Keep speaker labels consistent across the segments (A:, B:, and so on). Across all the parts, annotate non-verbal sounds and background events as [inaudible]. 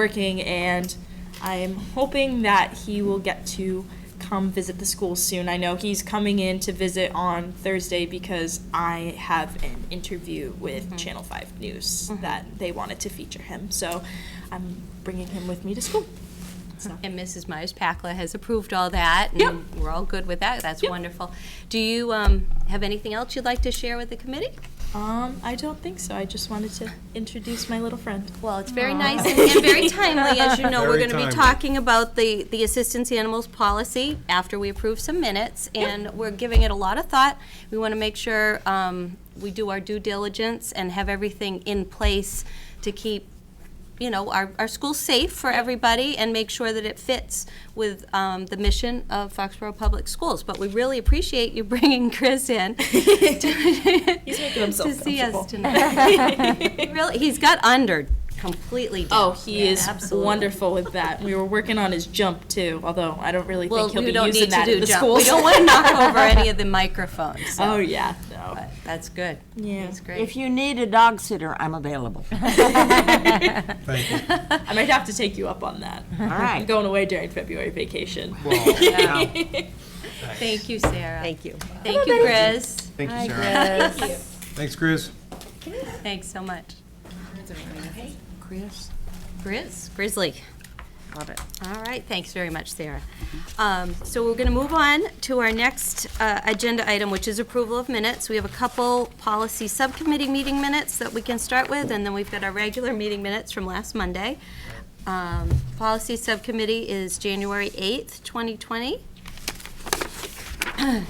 A: working, and I'm hoping that he will get to come visit the school soon. I know he's coming in to visit on Thursday because I have an interview with
B: Mm-hmm.
A: Channel 5 News that they wanted to feature him. So I'm bringing him with me to school. So.
B: And Mrs. Myers Pacla has approved all that,
A: Yep.
B: and we're all good with that. That's
A: Yep.
B: wonderful. Do you um, have anything else you'd like to share with the committee?
A: Um, I don't think so. I just wanted to introduce my little friend.
B: Well, it's very nice and and very timely.
A: [laughs]
B: As you know, we're
C: Very
B: going to be
C: timely.
B: talking about the, the assistance animals policy after we approve some minutes, and we're giving it a lot of thought. We want to make sure um, we do our due diligence and have everything in place to keep, you know, our, our school safe for everybody and make sure that it fits with um, the mission of Foxborough Public Schools. But we really appreciate you [laughs] bringing
A: [laughs]
B: Chris in
A: He's making himself
B: to see us
A: comfortable.
B: tonight. [laughs] Really, he's got under completely down.
A: Oh, he is wonderful with that. We were working on his jump too, although I don't really
B: Well,
A: think he'll
B: we
A: be
B: don't
A: using
B: need to
A: that at
B: do
A: the
B: jump.
A: school.
B: We don't want to knock over
A: [laughs]
B: any of the microphones. so,
A: Oh yeah, no.
B: [laughs] but That's good.
A: Yeah.
B: That's
D: If
B: great.
D: you need a dog sitter,
B: [laughs]
D: I'm available.
A: [laughs]
C: Thank you.
A: I might have to take you up on that.
D: All
A: I'm
D: right.
A: going away during February vacation. [laughs]
B: Thank you, Sarah.
D: Thank you.
B: Thank you, Chris.
C: Thank you, Sarah. [laughs]
B: [laughs]
C: Thanks, Chris.
B: Thanks so much. Chris? Grizzly.
D: Love it.
B: All right, thanks very much, Sarah. Um, So we're going to move on to our next uh, agenda item, which is approval of minutes. We have a couple policy subcommittee meeting minutes that we can start with, and then we've got our regular meeting minutes from last Monday. Um, Policy Subcommittee is January 8th, 2020.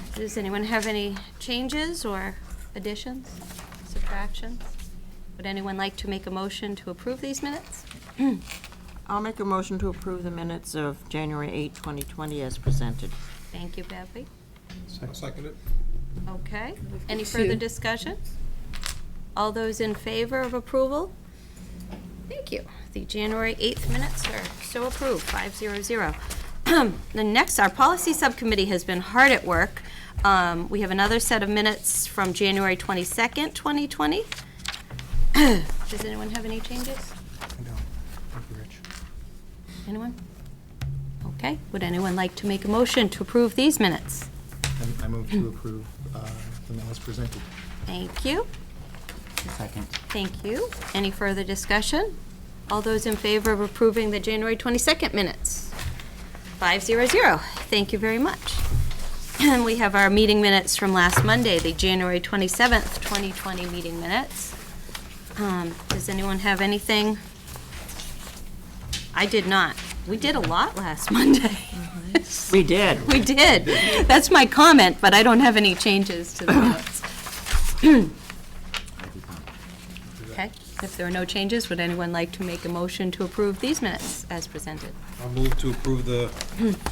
B: [clears throat] Does anyone have any changes or additions, subtractions? Would anyone like to make a motion to approve these minutes? [clears throat]
D: I'll make a motion to approve the minutes of January 8, 2020 as presented.
B: Thank you, Beverly.
C: I'll second it.
B: Okay, any further discussion? All those in favor of approval? Thank you. The January 8th minutes are so approved, 500. [clears throat] The next, our policy subcommittee has been hard at work. Um, We have another set of minutes from January 22nd, 2020. [clears throat] Does anyone have any changes?
C: I know. Thank you, Rich.
B: Anyone? Okay, would anyone like to make a motion to approve these minutes?
C: And I move to approve uh, the minutes presented.
B: Thank you.
D: Second.
B: Thank you. Any further discussion? All those in favor of approving the January 22nd minutes? 500. Thank you very much. [clears throat] And we have our meeting minutes from last Monday, the January 27th, 2020 meeting minutes. Um, Does anyone have anything? I did not. We did a lot last [laughs] Monday.
D: We did.
B: We did. That's my comment, but I don't have any changes
D: [clears throat]
B: to the minutes. Okay, if there are no changes, would anyone like to make a motion to approve these minutes as presented?
E: I'll move to
B: [clears throat]
E: approve the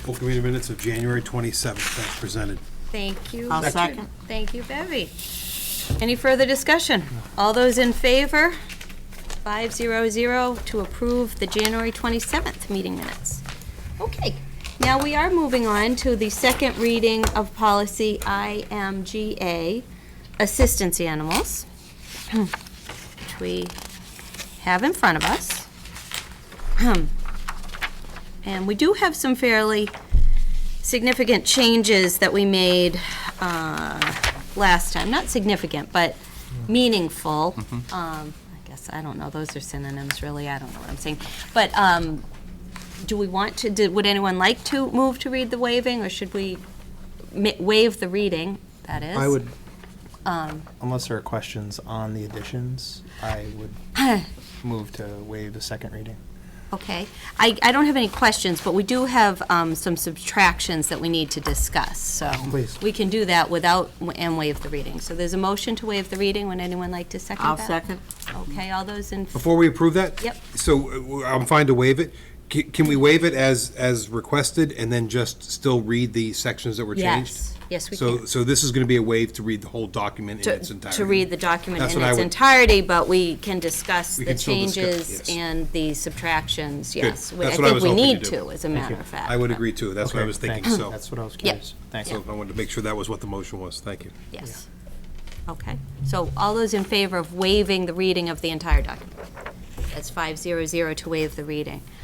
E: full committee minutes of January 27th as presented.
B: Thank you.
D: I'll
B: Richard.
D: second.
B: Thank you, Bevy. Any further discussion? All those in favor? 500 to approve the January 27th meeting minutes. Okay, now we are moving on to the second reading of policy IMGA, assistance animals, [clears throat] which we have in front of us. [clears throat] And we do have some fairly significant changes that we made uh, last time, not significant, but meaningful. Um, I guess, I don't know, those are synonyms, really, I don't know what I'm saying. But um, do we want to, did- would anyone like to move to read the waiving, or should we ma- waive the reading, that is? Um,
F: I would, unless there are questions on the additions, I would move to waive the second reading.
B: Okay. I I don't have any questions, but we do have um, some subtractions that we need to discuss, so.
F: Please.
B: We can do that without, and waive the reading. So there's a motion to waive the reading. Would anyone like to second that?
D: I'll second.
B: Okay, all those in,
E: Before we approve that?
B: Yep.
E: So uh, I'm fine to waive it. Ca- Can we waive it as, as requested and then just still read the sections that were changed?
B: yes, yes, we
E: So,
B: can.
E: so this is going to be a waive to read the whole document in its entirety?
B: To read the document
E: That's
B: in
E: what I
B: its
E: would-
B: entirety, but we can discuss
E: We
B: the
E: can still discuss-
B: changes
E: yes.
B: and the subtractions, yes. We-
E: That's what I was hoping to
B: think we
E: do.
B: need to, as a matter of fact.
E: I would agree too. That's what I
F: Okay,
E: was thinking,
F: thanks.
E: so.
F: That's what I was curious. Thanks.
E: So I wanted to make sure that was what the motion was. Thank you.
B: Yes. Okay. So all those in favor of waiving the reading of the entire document? That's 500 to waive the reading.